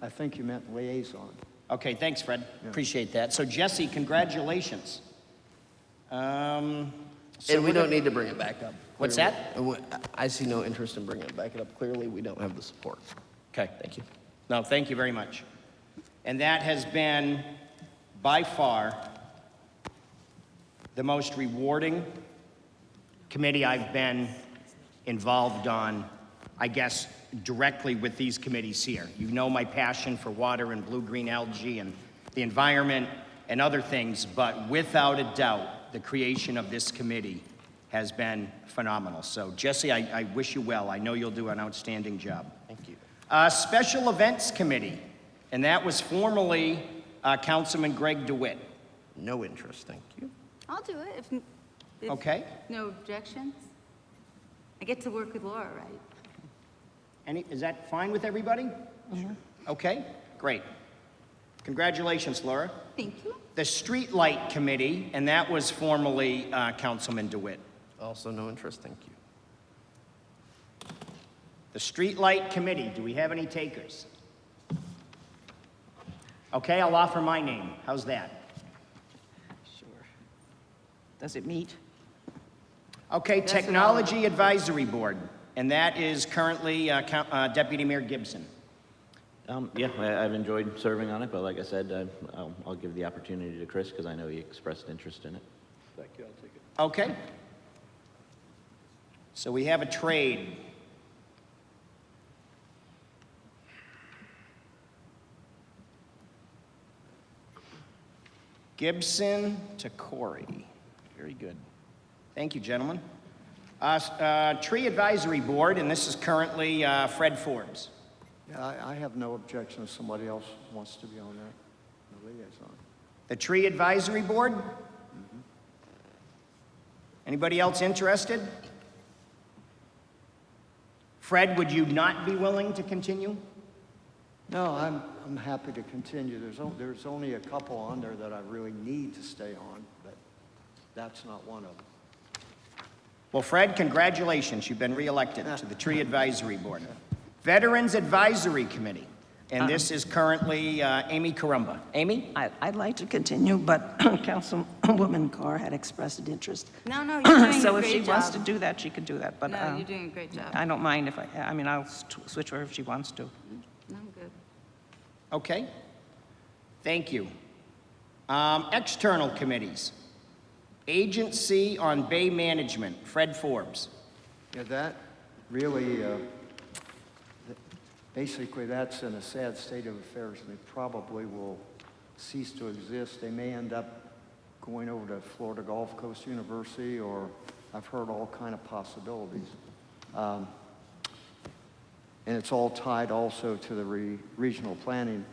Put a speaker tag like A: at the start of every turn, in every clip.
A: I think you meant liaison.
B: Okay, thanks, Fred. Appreciate that. So Jesse, congratulations. Um, so
C: And we
B: we're
C: don't
B: gonna-
C: need to bring it back up.
B: What's
C: clearly.
B: that?
C: And we- I see no interest in bringing it back up. Clearly, we don't have the support.
B: Okay,
C: Thank you.
B: no, thank you very much. And that has been by far the most rewarding committee I've been involved on, I guess, directly with these committees here. You know my passion for water and blue-green algae and the environment and other things, but without a doubt, the creation of this committee has been phenomenal. So Jesse, I, I wish you well. I know you'll do an outstanding job. Thank you. Uh, Special Events Committee, and that was formerly uh, Councilman Greg DeWitt.
C: No interest, thank you.
D: I'll do it if, if
B: Okay.
D: no objections. I get to work with Laura, right?
B: Any, is that fine with everybody? Okay, great. Congratulations, Laura.
D: Thank you.
B: The Streetlight Committee, and that was formerly uh, Councilman DeWitt.
C: Also, no interest, thank you.
B: The Streetlight Committee, do we have any takers? Okay, I'll offer my name. How's that?
E: Sure. Does it meet?
B: Okay, Technology Advisory Board, and that is currently uh, Coun- uh, Deputy Mayor Gibson.
F: Um, yeah, I, I've enjoyed serving on it, but like I said, I, I'll, I'll give the opportunity to Chris because I know he expressed interest in it.
B: Okay. So we have a trade. Gibson to Corey. Very good. Thank you, gentlemen. Uh, s- uh, Tree Advisory Board, and this is currently uh, Fred Forbes.
A: Yeah, I, I have no objection if somebody else wants to be on that, the liaison.
B: The Tree Advisory Board? Anybody else interested? Fred, would you not be willing to continue?
A: No, I'm, I'm happy to continue. There's, on- there's only a couple on there that I really need to stay on, but that's not one of them.
B: Well, Fred, congratulations, you've been reelected to the Tree Advisory Board. Veterans Advisory Committee, and this is currently uh, Amy Carumba. Amy?
E: I, I'd like to continue, but Councilwoman Carr had expressed an interest.
D: No, no, you're doing
E: So
D: a
E: if she
D: great
E: wants to
D: job.
E: do that, she could do that, but.
D: No,
E: uh,
D: you're doing a great job.
E: I don't mind if I, I mean, I'll s- switch her if she wants to.
D: I'm good.
B: Okay. Thank you. Um, External Committees. Agency on Bay Management, Fred Forbes.
A: Yeah, that really, uh, th- basically, that's in a sad state of affairs, and it probably will cease to exist. They may end up going over to Florida Gulf Coast University, or I've heard all kind of possibilities. Um, And it's all tied also to the re- regional planning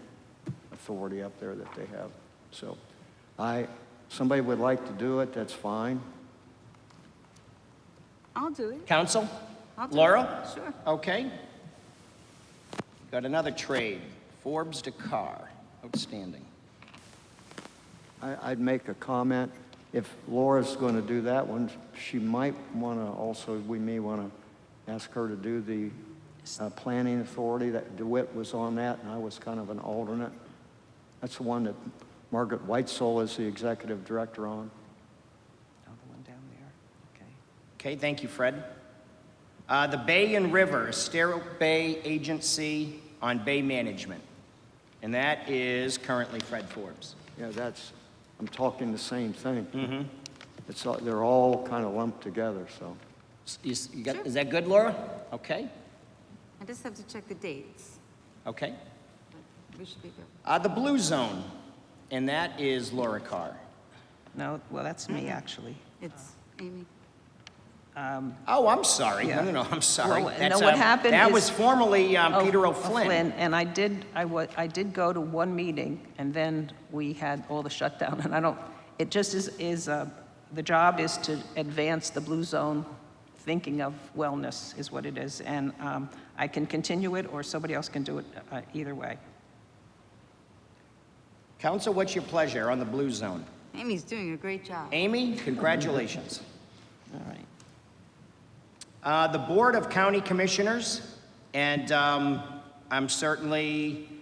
A: authority up there that they have. So I, somebody would like to do it, that's fine.
D: I'll do it.
B: Council?
D: I'll do it.
B: Laura?
D: Sure.
B: Okay. Got another trade, Forbes to Carr. Outstanding.
A: I, I'd make a comment. If Laura's going to do that one, she might want to also, we may want to ask her to do the uh, planning authority. That DeWitt was on that, and I was kind of an alternate. That's the one that Margaret Whitesole is the executive director on.
E: Oh, the one down there, okay.
B: Okay, thank you, Fred. Uh, The Bay and River, Estero Bay Agency on Bay Management. And that is currently Fred Forbes.
A: Yeah, that's, I'm talking the same thing. Mm-hmm. It's, all- they're all kind of lumped together, so.
B: S- you s- you got- Is that good, Laura? Okay,
D: I just have to check the dates.
B: okay.
D: We should be good.
B: Uh, The Blue Zone, and that is Laura Carr.
E: No, well, that's me, actually.
D: It's Amy.
B: Oh, I'm sorry. No,
E: Yeah.
B: no, no, I'm sorry.
E: Well, no,
B: That's,
E: what
B: um,
E: happened
B: That
E: is-
B: was formerly um,
E: Oh,
B: Peter
E: oh,
B: O'Flynn.
E: And I did, I wa, I did go to one meeting, and then we had all the shutdown, and I don't, it just is, is, uh, the job is to advance the Blue Zone thinking of wellness, is what it is, and, um, I can continue it, or somebody else can do it, uh, either way.
B: Council, what's your pleasure on the Blue Zone?
D: Amy's doing a great job.
B: Amy, congratulations.
E: All right.
B: Uh, The Board of County Commissioners, and um, I'm certainly